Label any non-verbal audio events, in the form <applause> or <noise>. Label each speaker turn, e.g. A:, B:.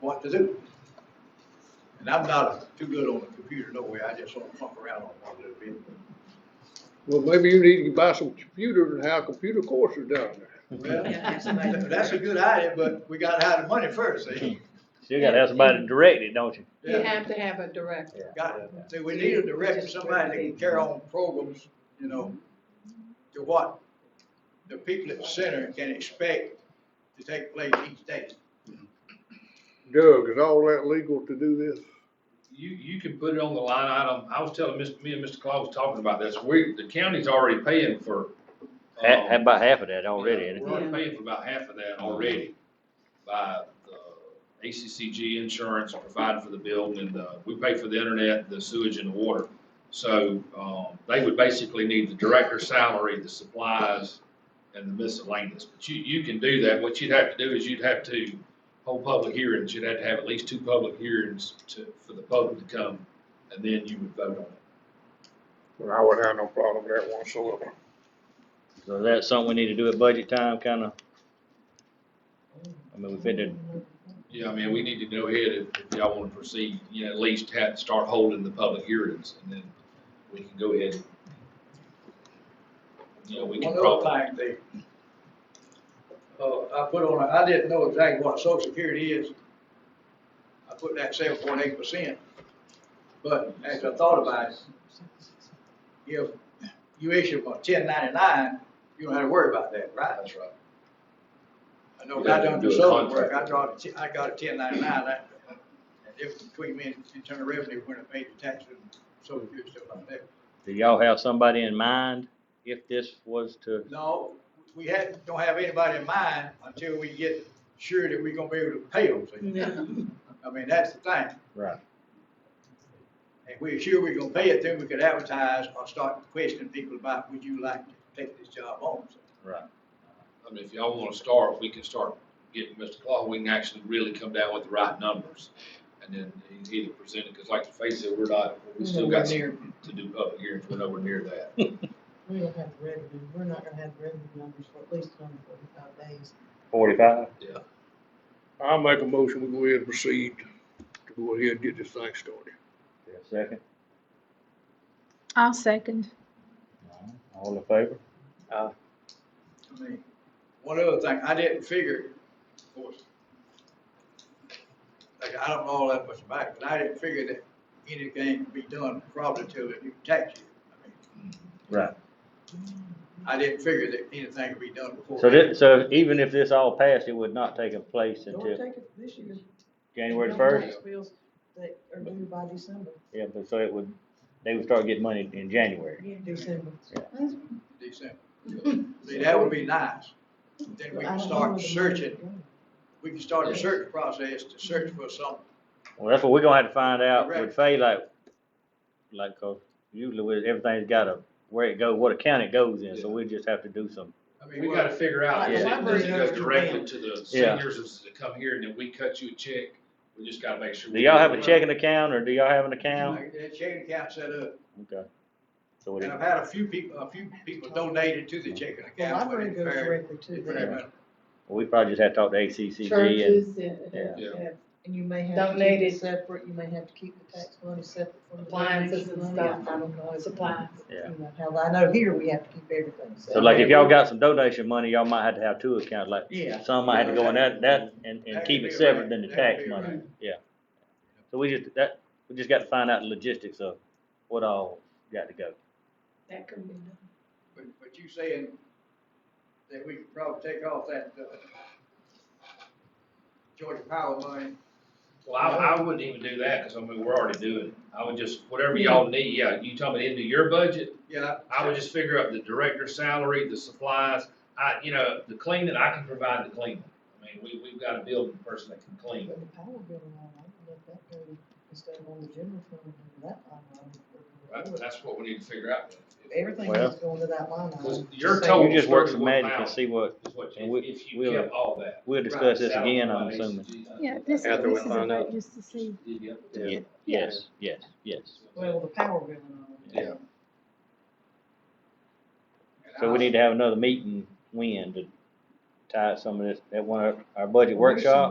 A: what to do. And I'm not too good on the computer, no way, I just sort of fuck around on one little bit.
B: Well, maybe you need to buy some computers and have computer courses down there.
C: Yeah,
A: Well,
C: somebody-
A: that's a good idea, but we gotta have the money first, eh?
D: Still gotta have somebody to direct it, don't you?
C: You have to have a director.
A: Got, see, we need a director, somebody that can carry on programs, you know, to what the people at the center can expect to take place each day.
B: Doug, is all that legal to do this?
E: You, you can put it on the line item, I was telling Mr., me and Mr. Claus was talking about this, we, the county's already paying for.
D: Ha-
E: um,
D: ha- about half of that already, ain't it?
E: We're already paying for about half of that already by the ACCG insurance provided for the building and the, we pay for the internet, the sewage and the water. So, um, they would basically need the director's salary, the supplies and the miscellaneous. But you, you can do that. What you'd have to do is you'd have to hold public hearings. You'd have to have at least two public hearings to, for the public to come and then you would vote on it.
B: Well, I wouldn't have no problem with that whatsoever.
D: So that's something we need to do at budget time, kinda? I mean, we fitted,
E: Yeah, I mean, we need to go ahead if if y'all want to proceed, you know, at least have, start holding the public hearings and then we can go ahead. and- You know, we can
A: One other
E: probably,
A: thing, Dave. Uh, I put on, a- I didn't know exactly what social security is. I put that seven point eight percent. But as I thought about it, if you issue a ten ninety-nine, you don't have to worry about that, right? That's right. I know, when I done do some work, I draw, the t- I got a ten ninety-nine, that, that difference between me and internal revenue when I paid the taxes and social security stuff like that.
D: do y'all have somebody in mind if this was to,
A: No, we had, don't have anybody in mind until we get sure that we're gonna be able to pay them. see? I mean, that's the thing.
D: Right.
A: If we're sure we're gonna pay it, then we could advertise or start questioning people about, would you like to take this job on? see?
D: right,
E: I mean, if y'all want to start, we can start getting Mr. Claw, we can actually really come down with the right numbers. And then e- either present it, because like to face it, we're not, we still got some to do public hearings, we're nowhere near that.
F: We don't have the revenue, we're not gonna have the revenue numbers for at least another forty-five days.
D: forty-five?
B: I'll make a motion, we go ahead and proceed to go ahead and get this thing started.
D: Second,
G: I'll second.
D: all in favor?
A: I mean, one other thing, I didn't figure, of course, like, I don't know all that much about it, but I didn't figure that anything could be done probably till the new tax year. I mean,
D: Right.
A: I didn't figure that anything could be done before.
D: So this, so even if this all passed, it would not take place
F: Don't
D: until
F: take it this year.
D: January the
F: No
D: first?
F: tax Bills that are due by December,
D: Yeah, but so it would, they would start getting money in January.
F: December.
A: December.
F: <laughs>
A: See, that would be nice. Then we can start searching, we can start the search process to search for some,
D: Well, that's what we're gonna have to find out with Fay, like, like, 'cause usually with, everything's got a, where it go, what account it goes in, so we just have to do some.
A: I mean,
E: We gotta
A: what,
E: figure out, is it, does it go directly to the
D: Yeah.
E: seniors, or does it come here and then we cut you a check? We just gotta make sure.
D: Do
E: we
D: y'all have a
E: it.
D: checking account, or do y'all have an account?
A: like, that checking account set up,
D: Okay. So it
A: and I've had a few people, a few people donated to the checking
F: The
A: account. but
F: library
A: it's
F: goes
A: very-
F: directly to
A: it's
F: them.
A: very-
D: we probably just have to talk to ACCG and,
C: Churches and-
D: yeah.
E: Yeah.
F: Yeah, And you may have to keep
C: Donated.
F: it separate, you may have to keep the tax money separate from the.
C: Appliances
F: donation
C: and
F: money.
C: stuff,
F: I don't know.
C: supplies.
D: Yeah.
F: You know, How, I know here we have to keep everything.
D: So like, if y'all got some donation money, y'all might have to have two accounts, like,
F: Yeah.
D: some might have to go in that, that, and, and
A: That
D: keep
A: could
D: it
A: be
D: separate
A: right.
D: than the
A: That
D: tax
A: could be
D: money,
A: right.
D: yeah. So we just, that, we just got to find out the logistics of what all got to go.
C: That can be done.
A: But, but you saying that we could probably take off that, uh, Georgia Power money,
E: Well, I, I wouldn't even do that, cause I mean, we're already doing it. I would just, whatever y'all need, yeah, you tell me into your budget,
A: yeah.
E: I would just figure out the director's salary, the supplies. I, you know, the cleaning, I can provide the cleaning. I mean, we, we've got a building person that can
F: But
E: clean.
F: the power bill line, I can let that go instead of on the general fund, and that line
E: That-
F: item.
E: That's what we need to figure out.
F: Everything
D: Well-
F: is going to that line
E: Cause
F: item.
E: your
F: So
E: total
D: You
E: is
D: just work some
E: thirty-one
D: magic and
E: thousand.
D: see what,
E: Is what,
D: and we-
E: you- if you
D: we'll-
E: kept all that.
D: we'll discuss this again, I'm assuming.
G: Yeah, this,
B: After we
G: this is a
B: find out.
G: vote just to see.
E: Yeah.
D: Ye- Yes, yes, yes.
F: Well, the power bill and all. that.
E: Yeah.
D: So we need to have another meeting when to tie some of this, at one, of our budget workshop?